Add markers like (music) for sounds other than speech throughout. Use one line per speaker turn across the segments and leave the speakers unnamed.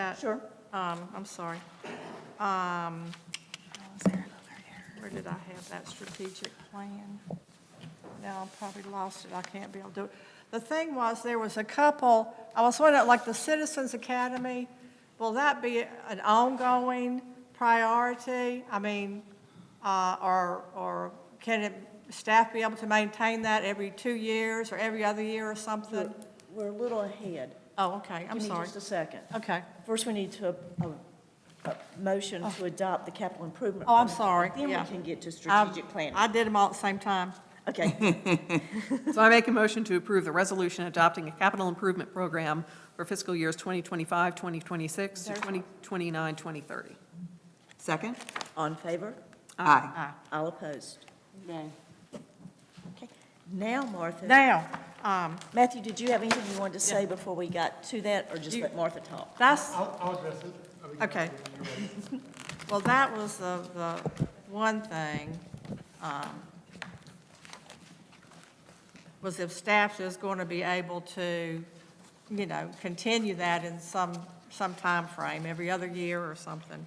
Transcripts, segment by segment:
that?
Sure.
Um, I'm sorry. Um, Where did I have that strategic plan? Now, I probably lost it, I can't be able to do it. The thing was, there was a couple, I was wondering, like the Citizens Academy, will that be an ongoing priority? I mean, uh, or, or can it, staff be able to maintain that every two years or every other year or something?
We're a little ahead.
Oh, okay, I'm
Give me
sorry.
just a second.
Okay.
First, we need to, a, a motion to adopt the capital improvement.
Oh, I'm
plan.
sorry,
Then we
yeah.
can get to
I-
strategic planning.
Um, I did them all at the same time.
Okay,
So I make a motion to approve the resolution adopting a capital improvement program for fiscal years 2025, 2026 to 2029, 2030.
Second?
all in favor?
Aye.
All opposed? Nay. Now, Martha,
Now, um,
Matthew, did you have anything you wanted to say before we got to that, or just
You-
let Martha talk?
that's,
I'll, I'll address it. I mean,
Okay. (laughs)
you're right.
well, that was the, the one thing, um, was if staff is going to be able to, you know, continue that in some, some frame, every other year or something.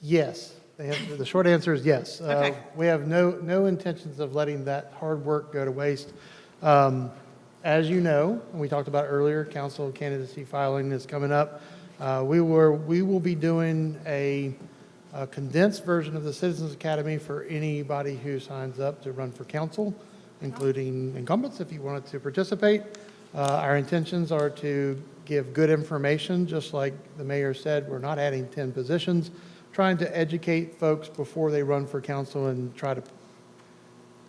Yes. The answer- The short answer is yes. Uh,
Okay.
We have no, no intentions of letting that hard work go to waste. Um, As you know, and we talked about earlier, council candidacy filing is coming up. Uh, We were, we will be doing a a condensed version of the Citizens Academy for anybody who signs up to run for council, including incumbents, if you wanted to participate. Uh, Our intentions are to give good information, just like the mayor said, we're not adding 10 positions, trying to educate folks before they run for council and try to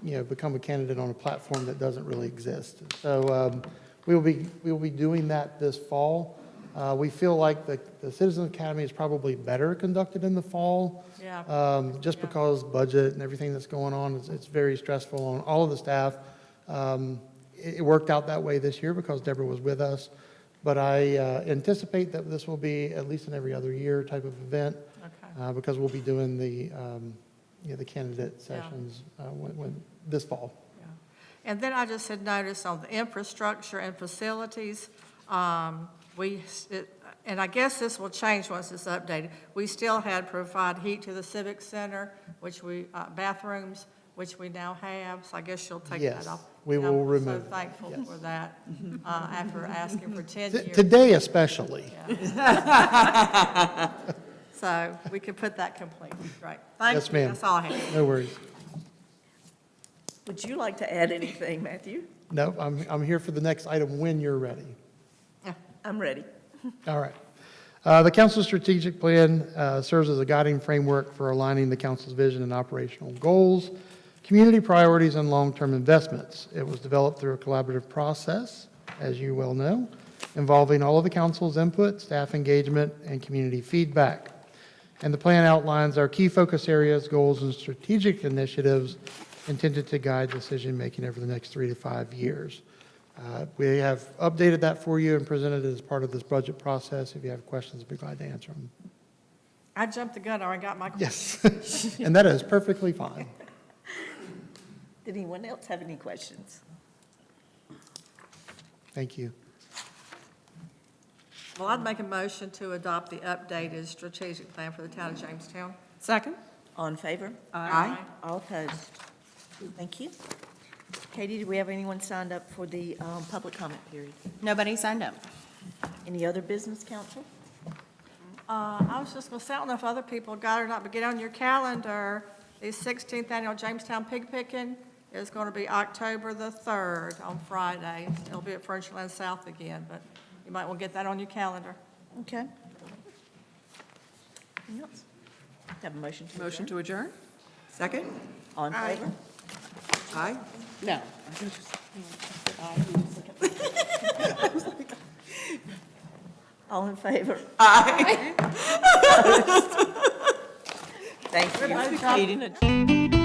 you know, become a candidate on a platform that doesn't really exist. So um, we will be, we will be doing that this fall. Uh, We feel like the the Citizen Academy is probably better conducted in the fall.
Yeah.
um, Just
Yeah.
because budget and everything that's going on, it's, it's very stressful on all of the staff. Um, It, it worked out that way this year because Deborah was with us. But I uh, anticipate that this will be at least an every other year type of event
Okay,
uh, because we'll be doing the, um, you know, the candidate sessions uh, when, when, this fall.
yeah. And then I just had noticed on the infrastructure and facilities, um, we, s- it- and I guess this will change once it's updated. We still had provide heat to the civic center, which we, uh, bathrooms, which we now have, so I guess you'll take that
Yes,
off.
we
And
will
I'm
remove
so
it,
thankful
yes.
for that, uh, after asking for 10
T-
years.
Today especially.
So we could put that complete, right. Thank
Yes,
you,
ma'am.
That's all I have.
No worries.
Would you like to add anything, Matthew?
No, I'm, I'm here for the next item when you're ready.
I'm ready.
Mm-hmm. All right. Uh, The council's strategic plan uh, serves as a guiding framework for aligning the council's vision and operational goals, community priorities, and long-term investments. It was developed through a collaborative process, as you well know, involving all of the council's input, staff engagement, and community feedback. And the plan outlines our key focus areas, goals, and strategic initiatives intended to guide decision-making over the next three to five years. Uh, We have updated that for you and presented it as part of this budget process. If you have questions, I'd be glad to answer them.
I jumped the gun, I already got my.
Yes, (laughs) and that is perfectly fine.
Did anyone else have any questions?
Thank you.
Well, I'd make a motion to adopt the updated strategic plan for the town of Jamestown.
Second?
All in favor?
Aye.
All opposed? Thank you. Katie, do we have anyone signed up for the um, public comment period?
Nobody signed up.
Any other business, council?
Uh, I was just gonna say, I don't know if other people got it or not, but get on your calendar, the 16th Annual Jamestown Pig Picking is gonna be October the 3rd on Friday. It'll be at Furnishland South again, but you might want to get that on your calendar.
Okay. Anything else? Have a motion to
Motion to adjourn?
Second?
adjourn? All in favor?
Aye.
No.
All in favor? Aye. Thank you. (laughs)
Everybody jump.
Katie, no.